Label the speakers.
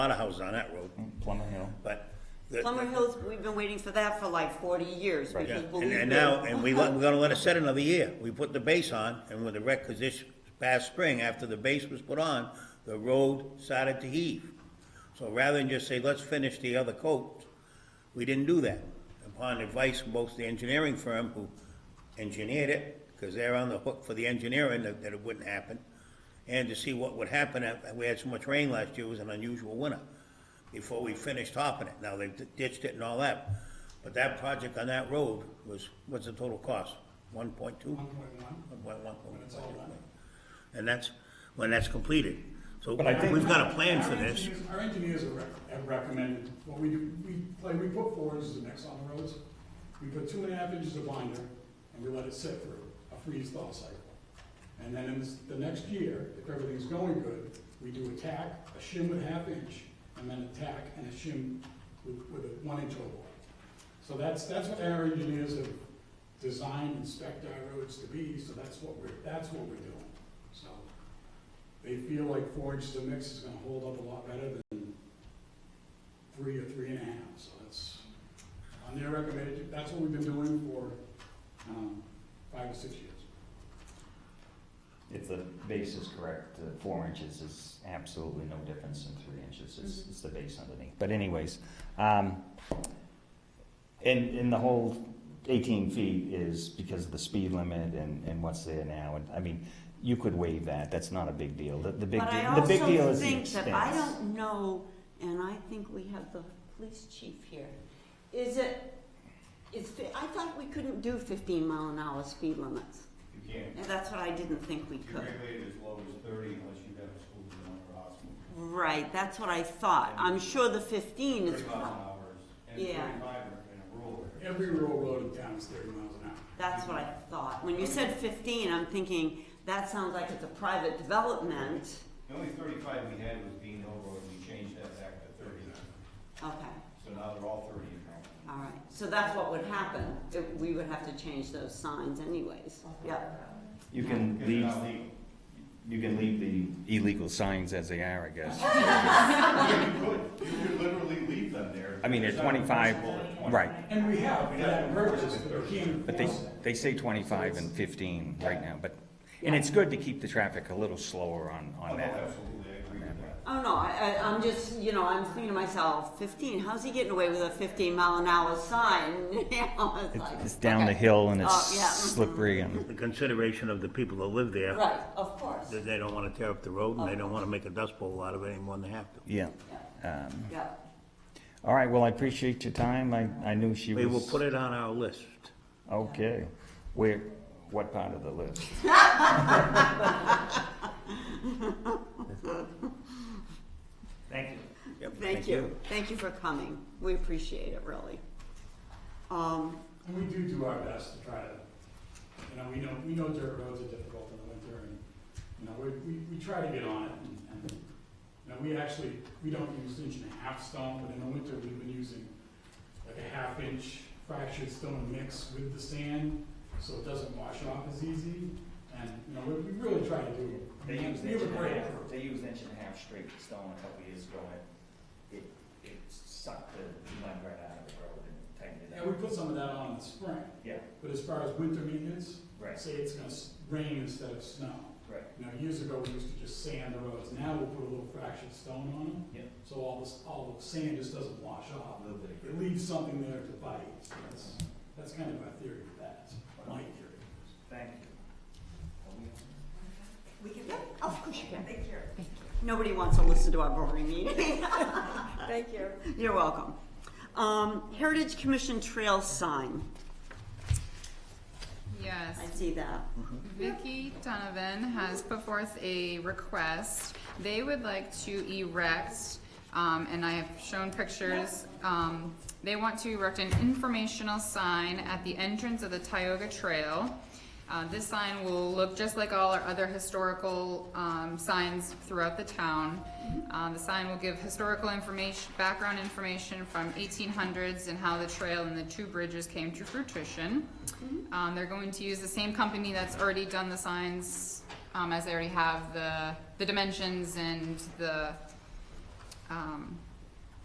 Speaker 1: lot of houses on that road,
Speaker 2: Mm, Plumber Hill.
Speaker 1: but. the-
Speaker 3: Plummer
Speaker 1: the-
Speaker 3: Hills, we've been waiting for that for like forty years,
Speaker 2: Right.
Speaker 1: Yeah,
Speaker 3: because
Speaker 1: and,
Speaker 3: believe me.
Speaker 1: and now, and we, let- we're gonna let it set another year. We put the base on, and when the wreck, cause this past spring, after the base was put on, the road started to heave. So rather than just say, let's finish the other coat, we didn't do that. Upon advice from both the engineering firm who engineered it, cause they're on the hook for the engineering, that, that it wouldn't happen, and to see what would happen, if- we had so much rain last year, it was an unusual winter before we finished topping it. Now, they've ditched it and all that, but that project on that road was, what's the total cost? One point two? One point one. One point one. And that's, when that's completed. So
Speaker 2: But I think-
Speaker 1: we've got a plan for
Speaker 4: Our
Speaker 1: this.
Speaker 4: engineers- Our engineers have rec- have recommended, what we do, we, like, we put four inches of mix on the roads. We put two and a half inches of binder, and we let it sit for a freeze thaw cycle. And then in this- the next year, if everything's going good, we do a tack, a shim with a half inch, and then a tack and a shim with, with a one inch overlap. So that's, that's what our engineers have designed and spec'd our roads to be, so that's what we're, that's what we're doing, so they feel like four inches of mix is gonna hold up a lot better than three or three and a half, so that's, on their recommended, that's what we've been doing for, um, five or six years.
Speaker 2: If the base is correct, the four inches is absolutely no difference than three inches. It's,
Speaker 3: Mm-hmm.
Speaker 2: it's the base underneath. But anyways, um, and, and the whole eighteen feet is because of the speed limit and, and what's there now. And I mean, you could waive that. That's not a big deal. The, the big,
Speaker 3: But I
Speaker 2: deal- the big deal
Speaker 3: also
Speaker 2: is the
Speaker 3: think that, I
Speaker 2: expense.
Speaker 3: don't know, and I think we have the police chief here, is it, is, fi- I thought we couldn't do fifteen mile an hour speed limits.
Speaker 5: You can't,
Speaker 3: And that's what I didn't think we
Speaker 5: you
Speaker 3: could.
Speaker 5: regulate it as low as thirty unless you have a school zone or a hospital.
Speaker 3: Right, that's what I thought. I'm sure the fifteen is,
Speaker 5: Thirty miles an hour is, and
Speaker 3: Yeah.
Speaker 5: thirty-five in a rural area.
Speaker 4: Every rural road in town is thirty miles an hour.
Speaker 3: that's what I thought. When you said fifteen, I'm thinking, that sounds like it's a private development.
Speaker 5: The only thirty-five we had was Bean Hill Road, we changed that back to thirty,
Speaker 3: Okay.
Speaker 5: so now they're all thirty in Rutland.
Speaker 3: All right, so that's what would happen, It- we would have to change those signs anyways, yep.
Speaker 2: You can
Speaker 5: Because they're
Speaker 2: leave,
Speaker 5: not legal.
Speaker 2: you can leave the illegal signs as they are, I guess.
Speaker 5: You could, you could literally leave them there.
Speaker 2: I mean, they're
Speaker 5: It's not
Speaker 2: twenty-five,
Speaker 5: enforceable at 20.
Speaker 2: right.
Speaker 4: And we have, for that purpose, but we can't
Speaker 2: But they,
Speaker 4: enforce it.
Speaker 2: they say twenty-five and fifteen right now, but, and it's good to keep the traffic a little slower on,
Speaker 5: Oh,
Speaker 2: on
Speaker 5: no,
Speaker 2: that.
Speaker 5: absolutely, I agree with that.
Speaker 3: Oh, no, I, I, I'm just, you know, I'm thinking to myself, fifteen, how's he getting away with a fifteen mile an hour sign? You know, it's like,
Speaker 2: It's down the
Speaker 3: okay.
Speaker 2: hill and
Speaker 3: Oh, yeah,
Speaker 2: it's
Speaker 3: mhm.
Speaker 2: slippery and,
Speaker 1: The consideration of the people that live there,
Speaker 3: Right, of course,
Speaker 1: that they don't wanna tear up the road, and they don't wanna make a dust bowl out of it any more than they have to.
Speaker 2: yeah. Um,
Speaker 3: yeah.
Speaker 2: All right, well, I appreciate your time. I, I knew she was.
Speaker 1: We will put it on our list.
Speaker 2: Okay. Where, what part of the list?
Speaker 1: Thank you.
Speaker 3: Thank you, thank you for coming, we appreciate it, really. Um,
Speaker 4: And we do do our best to try to, you know, we know, we know dirt roads are difficult in the winter, and, you know, we, we, we try to get on it, and, and, you know, we actually, we don't use inch and a half stone, but in the winter, we've been using like a half inch fractured stone mix with the sand, so it doesn't wash off as easy, and, you know, we, we really try to do it. I mean, We have a great crew.
Speaker 6: they used inch and a half straight stone a couple years ago, and it, it sucked the mud right out of the road and tightened
Speaker 4: Yeah, we put some of that on in the spring,
Speaker 6: Yeah,
Speaker 4: but as far as winter maintenance,
Speaker 6: Right.
Speaker 4: say it's gonna s- rain instead of snow.
Speaker 6: right.
Speaker 4: You know, years ago, we used to just sand the roads, now we'll put a little fractured stone on them.
Speaker 6: Yep.
Speaker 4: So all this, all the sand just doesn't wash off,
Speaker 6: A little bit of
Speaker 4: it leaves something there to bite, so that's, that's kind of my theory of that, It's my theory.
Speaker 6: Thank you. Are we on?
Speaker 3: we can, yeah, of course you can. Thank you. Nobody wants to listen to our boring meeting.
Speaker 7: Thank you.
Speaker 3: You're welcome. Um, Heritage Commission Trail sign,
Speaker 8: Yes,
Speaker 3: I see that.
Speaker 8: Vicky Donovan has put forth a request. They would like to erect, um, and I have shown pictures, um, they want to erect an informational sign at the entrance of the Tioga Trail. Uh, this sign will look just like all our other historical, um, signs throughout the town. Uh, the sign will give historical information, background information from eighteen hundreds and how the trail and the two bridges came to fruition. Um, they're going to use the same company that's already done the signs, um, as they already have the, the dimensions and the, um,